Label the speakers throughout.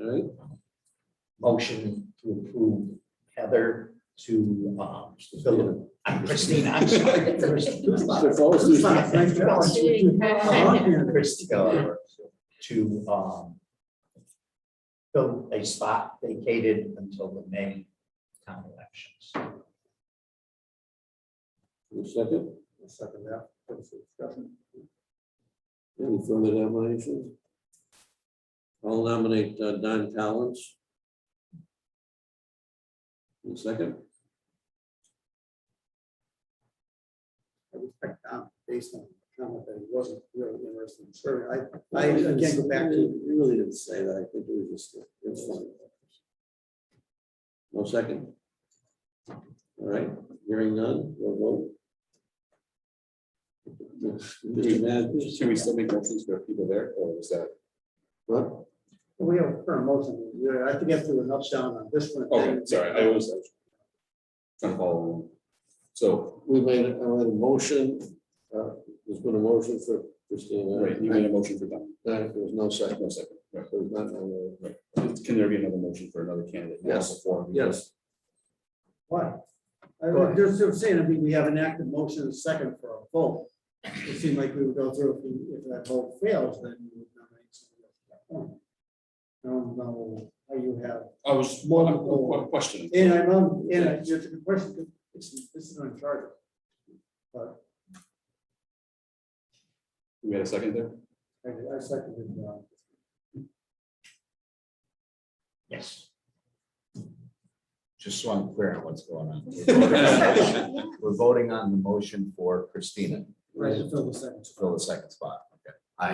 Speaker 1: Alright,
Speaker 2: Motion to approve Heather to, um, fill
Speaker 1: so,
Speaker 2: in. Christina, I'm sorry.
Speaker 1: so folks,
Speaker 2: It's
Speaker 1: there's-
Speaker 2: not- it's not-
Speaker 3: Doing-
Speaker 2: Christina to, um, fill a spot vacated until the May town elections.
Speaker 1: a second,
Speaker 4: Second that, that's a discussion.
Speaker 1: any further nominations? I'll nominate uh, Don Collins. A second,
Speaker 4: I respect Tom based on the comment that he wasn't really interested in serving. I, I again go back to,
Speaker 1: You really didn't say that, I think it was just, it's fine. No second. All right, hearing none, we'll vote. Mr. Matt,
Speaker 5: Should we still make motions for people there, or is that?
Speaker 1: what?
Speaker 4: we have a current motion, Yeah, I have to get through an upsdown on this one.
Speaker 5: Okay, sorry, I was. I was Trying to follow. along. So,
Speaker 1: We made, I made a motion, uh, there's been a motion for Christina.
Speaker 5: right, you made a motion for that,
Speaker 1: There was no
Speaker 5: no
Speaker 1: second,
Speaker 5: second, right.
Speaker 1: there's not, no, uh,
Speaker 5: Can there be another motion for another candidate?
Speaker 1: Yes.
Speaker 5: Before we-
Speaker 1: yes,
Speaker 4: Why? I was just just saying, I mean, we have an active motion and second for a vote. It seemed like we would go through, if we- if that vote fails, then you would nominate somebody else. at that point. I don't know how you have,
Speaker 5: I was, well, I'm- I'm questioning.
Speaker 4: and I know, and I- it's a good question, it's, this is uncharted.
Speaker 5: We had a second there?
Speaker 4: I I seconded, uh,
Speaker 2: Yes.
Speaker 6: Just so I'm clear on what's going on.
Speaker 5: Yeah.
Speaker 6: We're voting on the motion for Christina
Speaker 4: right, to fill the second.
Speaker 6: to fill the second spot. Okay. I,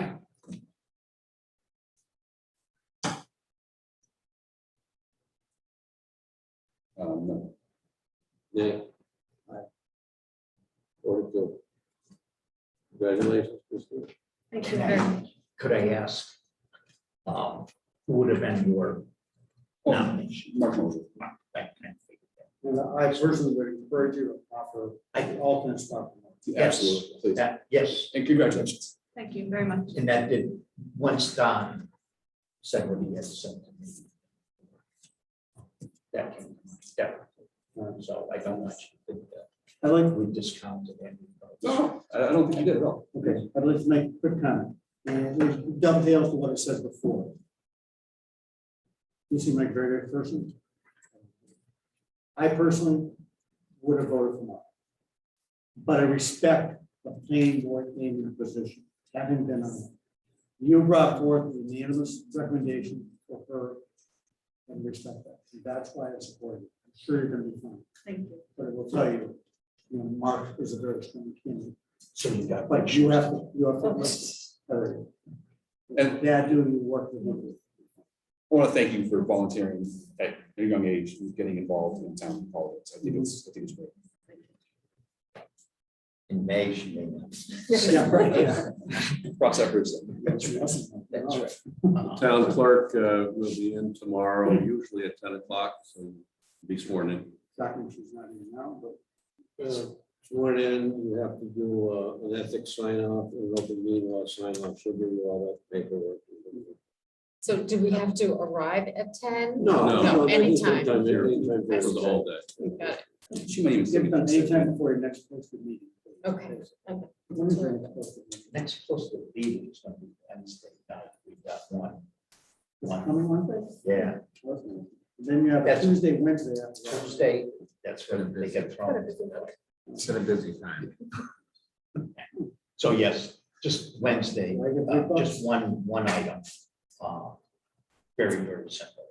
Speaker 5: Um, no.
Speaker 1: nay.
Speaker 4: Aye.
Speaker 1: Four to two. Congratulations, Christina.
Speaker 3: Thank you very much.
Speaker 2: Could I ask, um, who would have been your
Speaker 5: Oh,
Speaker 2: nomination?
Speaker 5: Mark Moser.
Speaker 4: And I personally would encourage you to offer the
Speaker 2: I,
Speaker 4: alternate spot.
Speaker 5: Absolutely, please.
Speaker 2: that, yes,
Speaker 5: And congratulations.
Speaker 3: Thank you very much.
Speaker 2: and that did, once Don said what he had said to me. That came, to mind, yeah, Um, so I don't want you to think
Speaker 4: I'd like,
Speaker 2: that we discounted any of those.
Speaker 5: No, I I don't think you did at all.
Speaker 4: okay, I'd like to make a quick comment, and it dovetails to what I said before. You seem like a very good person. I personally would have voted for Mark. But I respect the planning board in your position, having been on it. You brought forth the unanimous recommendation for her and respect that. And That's why I support you. I'm sure you're gonna be fine.
Speaker 3: Thank you.
Speaker 4: but I will tell you, you know, Mark is a very strong candidate,
Speaker 2: So you got.
Speaker 4: but you have, to you have to.
Speaker 5: And-
Speaker 4: And dad doing the work with him.
Speaker 5: I want to thank you for volunteering at a young age and getting involved in town politics. I think it's, I think it's great.
Speaker 2: In May, she may not.
Speaker 4: Yeah, right, yeah.
Speaker 5: Cross efforts.
Speaker 4: That's right.
Speaker 2: That's Oh, right. Uh-huh.
Speaker 1: Town clerk uh, will be in tomorrow, usually at ten o'clock, so be sworn in.
Speaker 4: Document she's not even now, but
Speaker 1: Sworn in, you have to do uh, an ethics sign off, an open meeting law sign off, she'll give you all that paperwork.
Speaker 7: So do we have to arrive at ten?
Speaker 1: No, they can
Speaker 7: No,
Speaker 1: take
Speaker 7: anytime.
Speaker 1: time, they can take time
Speaker 7: I
Speaker 1: for the whole day.
Speaker 7: Got it.
Speaker 5: She might even.
Speaker 4: give
Speaker 5: sing
Speaker 4: it
Speaker 5: it.
Speaker 4: done anytime before your next posted meeting.
Speaker 7: Okay, okay.
Speaker 4: When is your next posted meeting?
Speaker 2: Next posted meeting is gonna be Wednesday night, we've got one.
Speaker 4: This Coming Wednesday?
Speaker 2: Yeah,
Speaker 4: Wasn't it? Then you have a
Speaker 2: That's-
Speaker 4: Tuesday, Wednesday. after that.
Speaker 2: Tuesday, that's when they get thrown.
Speaker 6: it's been a busy time.
Speaker 2: So yes, just Wednesday,
Speaker 4: Like a big
Speaker 2: uh,
Speaker 4: box.
Speaker 2: just one, one item. uh, Very, very simple.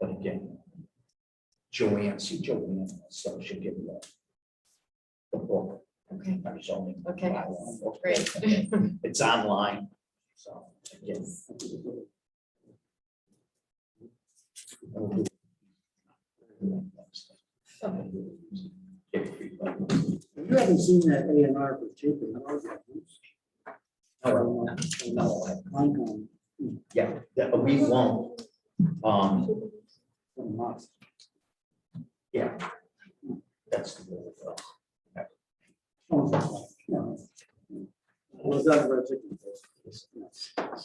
Speaker 2: But again, Joanne, see Joanne, so she'll give you the the book,
Speaker 7: Okay,
Speaker 2: our zoning.
Speaker 7: Okay,
Speaker 2: bylaw book.
Speaker 7: great.
Speaker 2: It's online, so again.
Speaker 4: You haven't seen that A and R for taping. I was like, oops.
Speaker 2: No, no, I-
Speaker 4: Mine gone
Speaker 2: Yeah, yeah, but we won't. Um,
Speaker 4: from Mark.
Speaker 2: yeah. That's the rule. of thumb.
Speaker 4: Oh, yeah. Was that a particular?